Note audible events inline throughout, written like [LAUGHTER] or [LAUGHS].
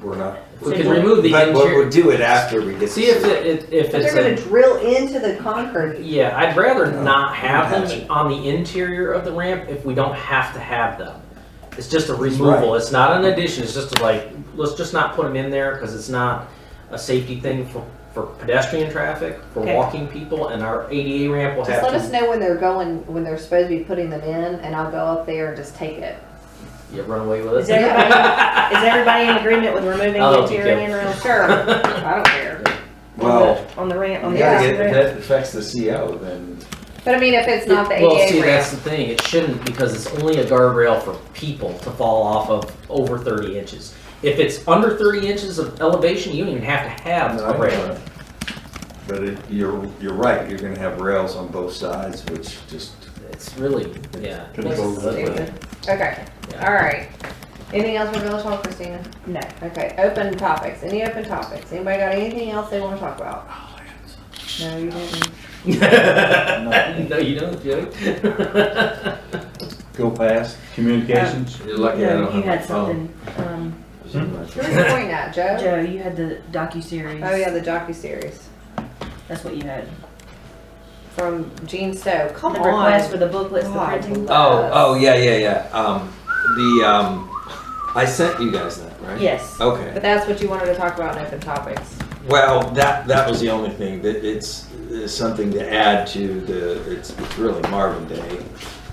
we're not. We can remove the But we'll, interior. we'll do it after we get. See if it, it- if But it's they're gonna a, drill into the concrete. yeah, I'd rather No, not have hatchet. them on the interior of the ramp if we don't have to have them. It's just a removal, it's not an addition, it's just a, like, let's just not put them in there because it's not a safety thing for, for pedestrian traffic, for Okay. walking people, and our ADA ramp will Just have let us to, know when they're going, when they're supposed to be putting them in, and I'll go up there and just take it. yeah, run away with Is it. everybody, is everybody in agreement with removing I'll the help you, interior Kim. and rail? Sure, I don't care. Well, On the ramp, on you the. gotta exit get, ramp? that affects the CO then. But I mean, if it's not the Well, see, ADA that's ramp, the thing, it shouldn't because it's only a guardrail for people to fall off of over thirty inches. If it's under thirty inches of elevation, you don't even have to have No, a I rail. know. But it, you're, you're right, you're gonna have rails on both sides, which just, It's really, yeah. Control that. stupid. Okay, Yeah. all right. Anything else for Village Hall, Christina? No. Okay, open topics, any open topics? Anybody got anything else they wanna talk about? No, you didn't. [LAUGHS] No, you don't, Joey. go past. Communications? You're lucky I No, don't you have my had phone. something, um, Who was pointing at, Joe? Joe, you had the docu-series. Oh, yeah, the docu-series That's what you had. from Gene Stowe, The come on. request for the booklets, the God printing. Oh, oh, yeah, yeah, yeah. Um, the, um, I sent you guys that, right? Yes. Okay. But that's what you wanted to talk about in open topics. Well, that, that was the only thing, that it's, it's something to add to the, it's, it's really Marvin Day.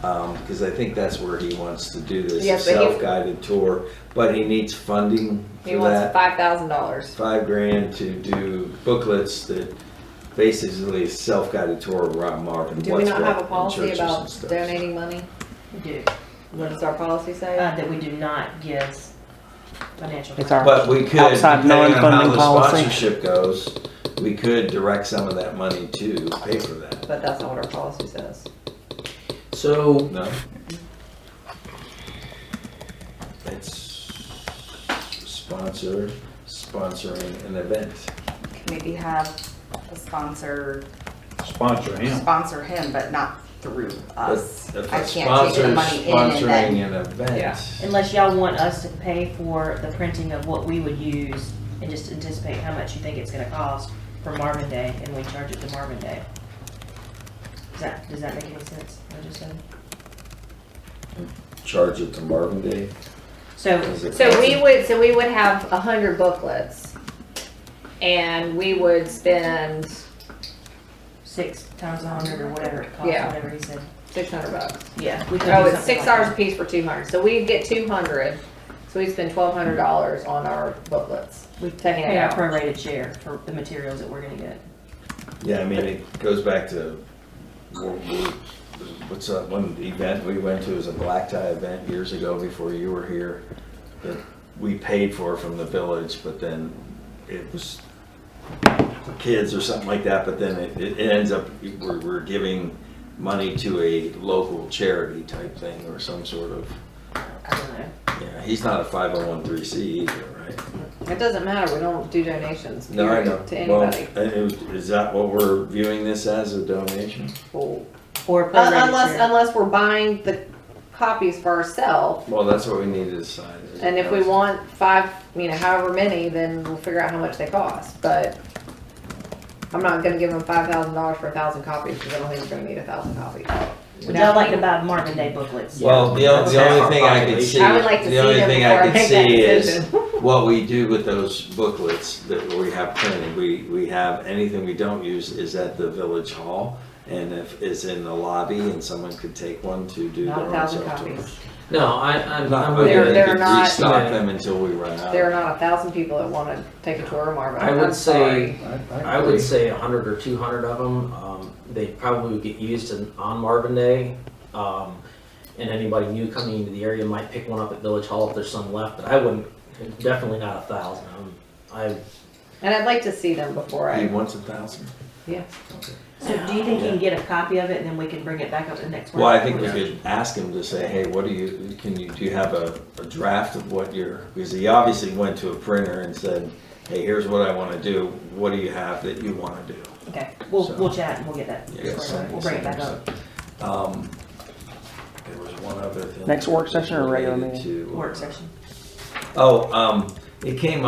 Um, because I think that's where he wants to do this, a Yes, but he- self-guided tour, but he needs funding He for wants that. five thousand dollars. Five grand to do booklets that basically is self-guided tour around Marvin. Do we what's not what have a in policy churches and about stuff. donating money? You do, What does our policy say? uh, that we do not give financial. It's our But we could, Outside depending on how non-funding the policy. sponsorship goes, we could direct some of that money to pay for that, But that's not what our policy says. [LAUGHS] So, no? It's sponsor, sponsoring an event. maybe have a sponsor Sponsor him. sponsor him, but not through us. If a I can't take the sponsor's money in and then. Sponsoring an Yeah. event. Unless y'all want us to pay for the printing of what we would use and just anticipate how much you think it's gonna cost for Marvin Day and we charge it to Marvin Day. Does that, does that make any sense? what I just said? Charge it to Marvin Day. So, 'cause it- So we would, so we would have a hundred booklets and we would spend six times a hundred or whatever it costs, Yeah. whatever he said. six hundred bucks. Yeah. we could do Oh, it's something six like dollars a that. piece for two hundred. So we'd get two hundred. So we'd spend twelve hundred dollars on our booklets. We've taken it paid our out. prorated share for the materials that we're gonna get. Yeah, I mean, it goes back to, World War- what's that one event we went to, it was a black tie event years ago before you were here, that we paid for from the village, but then it was for kids or something like that, but then it, it ends up, we're, we're giving money to a local charity type thing or some sort of, I don't know. yeah, he's not a 501c either, right? It doesn't matter. We don't do donations No, I period know. to Well, anybody. i- Is that what we're viewing this as, a donation? Well, Or Un- prorated Unless, share. unless we're buying the copies for ourselves, Well, that's what we need to decide. and if we want five, you know, however many, then we'll figure out how much they cost, but I'm not gonna give them five thousand dollars for a thousand copies, because I don't think we're gonna need a thousand copies. Would uh, y'all like to buy Marvin Day booklets? Well, the only, the That's only our thing I could population. see, I would like to see the only them thing before I I could make that see is decision. [LAUGHS] what we do with those booklets that we have printed. We, we have, anything we don't use is at the village hall. And if it's in the lobby and someone could take one to do their Not a own thousand self-tour. copies. no, I, I'm, Not, I'm but with They're- then you. they they're could not- restock them until we run There are out. not a thousand people that wanna take a tour of Marvin. I would I'm sorry. say- I would say a hundred or two hundred of them, um, they probably would get used in, on Marvin Day. Um, and anybody new coming into the area might pick one up at Village Hall if there's some left, but I wouldn't, definitely not a thousand. Um, I, And I'd like to see them before He I, wants a thousand. yeah. So do you think you can get a copy of it and then we can bring it back up the next one? Well, I think we could ask him to say, hey, what do you, can you, do you have a, a draft of what you're, because he obviously went to a printer and said, hey, here's what I wanna do, what do you have that you wanna do? Okay, we'll, So- we'll chat and we'll get that. Yeah, something- We'll bring it back up. Um, there was one other thing. Next work session or regular meeting? Related to- Work session. Oh, um, it came up.